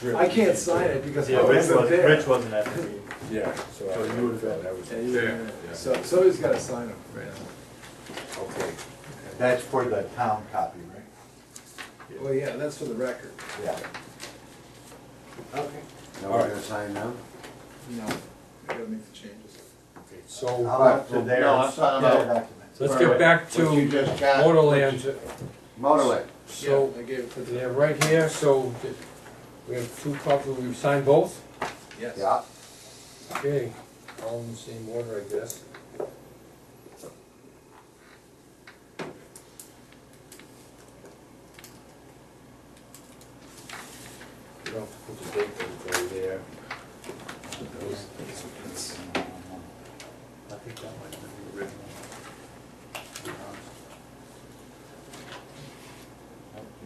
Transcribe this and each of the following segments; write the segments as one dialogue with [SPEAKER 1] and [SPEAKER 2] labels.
[SPEAKER 1] drill.
[SPEAKER 2] I can't sign it because
[SPEAKER 3] Yeah,
[SPEAKER 2] it
[SPEAKER 3] Rich
[SPEAKER 2] wasn't
[SPEAKER 3] was, Rich
[SPEAKER 2] there.
[SPEAKER 3] wasn't at the meeting.
[SPEAKER 1] Yeah, so I
[SPEAKER 3] So you would've been-
[SPEAKER 1] that was,
[SPEAKER 2] Yeah,
[SPEAKER 1] okay.
[SPEAKER 2] you were
[SPEAKER 4] Yeah.
[SPEAKER 2] there. uh, So, somebody's gotta sign it.
[SPEAKER 5] That's for the town copy, right?
[SPEAKER 2] Well, yeah, that's for the record.
[SPEAKER 5] Yeah.
[SPEAKER 1] Okay.
[SPEAKER 5] Now
[SPEAKER 1] All
[SPEAKER 5] we're
[SPEAKER 1] right.
[SPEAKER 5] gonna sign now?
[SPEAKER 2] No, I gotta make the changes.
[SPEAKER 1] Okay, so.
[SPEAKER 5] How about to
[SPEAKER 1] what-
[SPEAKER 5] their?
[SPEAKER 4] No, let's sign them all.
[SPEAKER 5] documents?
[SPEAKER 6] Let's
[SPEAKER 4] All
[SPEAKER 6] get
[SPEAKER 4] right.
[SPEAKER 6] back
[SPEAKER 4] What you
[SPEAKER 6] to
[SPEAKER 4] just got.
[SPEAKER 6] Motorland.
[SPEAKER 5] Motorway,
[SPEAKER 6] So,
[SPEAKER 2] Yeah, I gave it to
[SPEAKER 6] they're
[SPEAKER 2] the,
[SPEAKER 6] right here, so th- we have two copies, we've signed both?
[SPEAKER 2] yes.
[SPEAKER 5] yeah.
[SPEAKER 6] Okay, all in the same order, I guess. You don't have to put the date that's right there.
[SPEAKER 5] I think that might be the original.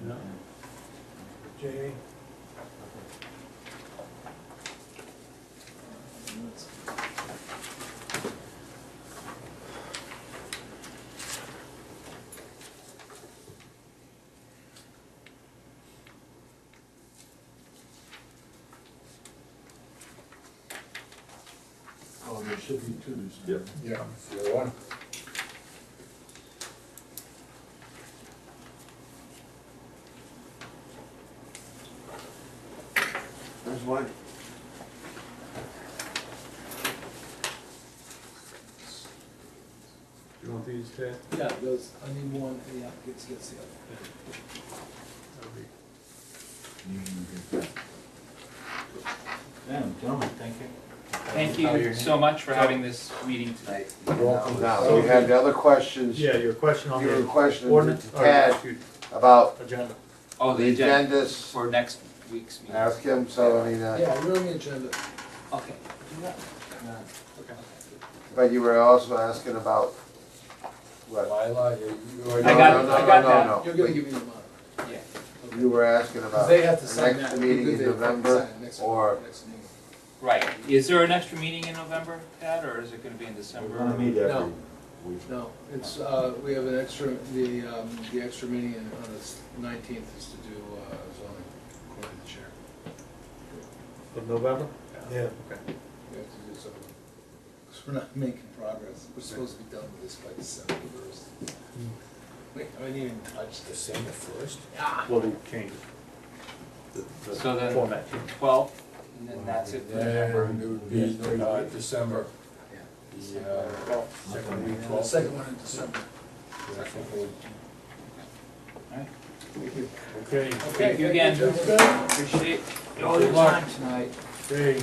[SPEAKER 6] No. Jay?
[SPEAKER 4] Oh, there should be two.
[SPEAKER 3] Yep.
[SPEAKER 6] Yeah. The other one?
[SPEAKER 5] There's one.
[SPEAKER 3] You want these, Ted?
[SPEAKER 2] Yeah, those, I need one, and the applicant gets the other.
[SPEAKER 4] Yeah, gentlemen, thank you.
[SPEAKER 7] Thank you so much for having this meeting today.
[SPEAKER 5] Now, we had the other questions,
[SPEAKER 3] Yeah, your question on
[SPEAKER 5] your
[SPEAKER 3] the
[SPEAKER 5] questions
[SPEAKER 3] ordinance,
[SPEAKER 5] to
[SPEAKER 3] or,
[SPEAKER 5] Tad
[SPEAKER 3] excuse,
[SPEAKER 5] about
[SPEAKER 3] agenda.
[SPEAKER 7] Oh,
[SPEAKER 5] the
[SPEAKER 7] the agenda
[SPEAKER 5] agendas.
[SPEAKER 7] for next week's meeting.
[SPEAKER 5] Ask him, so I mean, uh,
[SPEAKER 2] Yeah, we're on the agenda.
[SPEAKER 7] Okay.
[SPEAKER 5] but you were also asking about, what?
[SPEAKER 6] Lila, you, you
[SPEAKER 5] No,
[SPEAKER 6] already.
[SPEAKER 7] I got-
[SPEAKER 5] no,
[SPEAKER 7] I
[SPEAKER 5] no,
[SPEAKER 7] got
[SPEAKER 5] no,
[SPEAKER 7] that.
[SPEAKER 5] no.
[SPEAKER 2] You're gonna give me the mine.
[SPEAKER 7] Yeah.
[SPEAKER 5] You were asking about.
[SPEAKER 2] they have to
[SPEAKER 5] the
[SPEAKER 2] sign
[SPEAKER 5] next
[SPEAKER 2] that.
[SPEAKER 5] meeting
[SPEAKER 2] Either
[SPEAKER 5] in
[SPEAKER 2] they have to
[SPEAKER 5] November,
[SPEAKER 2] sign it next-
[SPEAKER 5] or
[SPEAKER 2] next meeting.
[SPEAKER 7] Right. Is there an extra meeting in November, Ted, or is it gonna be in December?
[SPEAKER 2] No. No, it's, uh, we have an extra, the, um, the extra meeting on the nineteenth is to do uh, zoning, according to the chair.
[SPEAKER 3] Of November? Yeah.
[SPEAKER 2] We have to do something, because we're not making progress. We're supposed to be done with this by December first. We haven't even touched this.
[SPEAKER 6] December first?
[SPEAKER 2] Ah,
[SPEAKER 3] Well, we changed the,
[SPEAKER 7] So
[SPEAKER 3] the
[SPEAKER 7] then-
[SPEAKER 3] format. change.
[SPEAKER 7] Twelve, and then that's it for November.
[SPEAKER 6] December.
[SPEAKER 2] Yeah.
[SPEAKER 6] The, uh, second week,
[SPEAKER 2] the
[SPEAKER 6] twelfth.
[SPEAKER 2] second one in December.
[SPEAKER 6] Yeah, I think we'll-
[SPEAKER 7] Alright.
[SPEAKER 3] Okay,
[SPEAKER 2] Okay,
[SPEAKER 7] you again.
[SPEAKER 2] gentlemen.
[SPEAKER 7] Appreciate all
[SPEAKER 6] Good
[SPEAKER 7] your
[SPEAKER 6] luck.
[SPEAKER 7] time tonight.
[SPEAKER 3] okay.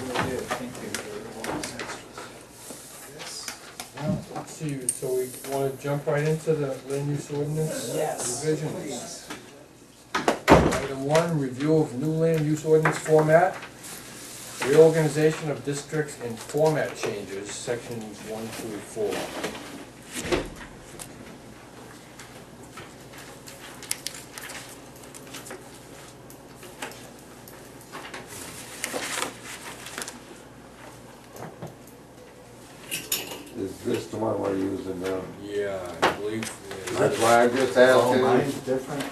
[SPEAKER 6] Now, let's see, so we wanna jump right into the land use ordinance revisions. Item one, review of new land use ordinance format, reorganization of districts and format changes, sections one through four.
[SPEAKER 5] is this the one we're using now?
[SPEAKER 6] Yeah, I believe.
[SPEAKER 5] That's why I just
[SPEAKER 4] Oh,
[SPEAKER 5] asked
[SPEAKER 4] mine's
[SPEAKER 5] him.
[SPEAKER 4] different.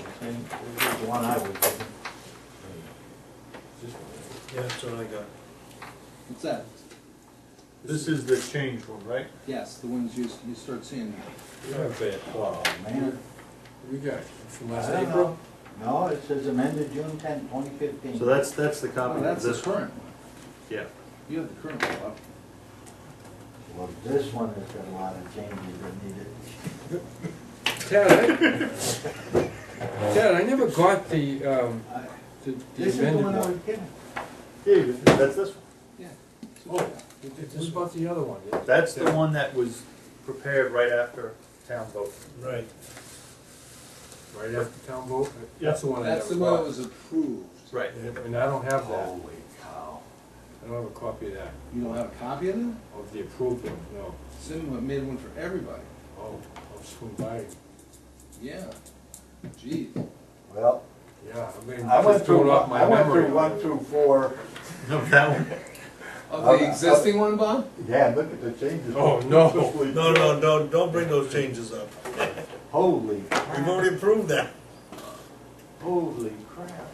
[SPEAKER 4] Okay, this is the one I was looking.
[SPEAKER 3] Yeah, that's what I got.
[SPEAKER 2] What's that?
[SPEAKER 3] This is the change one, right?
[SPEAKER 2] Yes, the ones you, you start seeing.
[SPEAKER 4] Oh,
[SPEAKER 3] um,
[SPEAKER 4] man.
[SPEAKER 6] We got it from
[SPEAKER 4] I
[SPEAKER 6] last
[SPEAKER 4] don't
[SPEAKER 6] April.
[SPEAKER 4] know. No, it says amended June tenth, twenty fifteen.
[SPEAKER 3] So that's, that's the copy
[SPEAKER 2] Oh,
[SPEAKER 3] of
[SPEAKER 2] that's the
[SPEAKER 3] this one.
[SPEAKER 2] current one.
[SPEAKER 3] Yeah.
[SPEAKER 2] You have the current one up.
[SPEAKER 4] Well, this one has got a lot of changes that needed.
[SPEAKER 6] Ted, I, Ted, I never got the, um,
[SPEAKER 4] I-
[SPEAKER 6] the the
[SPEAKER 4] This is the
[SPEAKER 6] amended
[SPEAKER 4] one I was
[SPEAKER 6] one.
[SPEAKER 4] getting.
[SPEAKER 3] Yeah, you- that's this one.
[SPEAKER 6] Oh, what about the other one?
[SPEAKER 3] That's the one that was prepared right after town vote. Right.
[SPEAKER 6] Right after town vote? That's the one I
[SPEAKER 2] That's
[SPEAKER 6] never
[SPEAKER 2] the one Oh, that
[SPEAKER 6] got.
[SPEAKER 2] was approved.
[SPEAKER 3] Right.
[SPEAKER 6] And I don't have that.
[SPEAKER 4] Holy cow.
[SPEAKER 6] I don't have a copy of that,
[SPEAKER 2] You don't have a copy of that?
[SPEAKER 6] of the approved one, no.
[SPEAKER 2] Cinema made one for everybody.
[SPEAKER 6] Oh, I'll swing by.
[SPEAKER 2] Yeah. Geez.
[SPEAKER 5] Well,
[SPEAKER 6] Yeah, I mean,
[SPEAKER 5] I went
[SPEAKER 6] just throwing
[SPEAKER 5] through,
[SPEAKER 6] off my
[SPEAKER 5] I went
[SPEAKER 6] memory.
[SPEAKER 5] through one through four,
[SPEAKER 3] No, that one.
[SPEAKER 2] Of
[SPEAKER 5] Uh,
[SPEAKER 2] the existing one, Bob?
[SPEAKER 5] yeah, look at the changes.
[SPEAKER 6] Oh, no.
[SPEAKER 8] No, no, no, don't bring those changes up.
[SPEAKER 5] Holy,
[SPEAKER 8] We've already approved that.
[SPEAKER 4] Holy crap.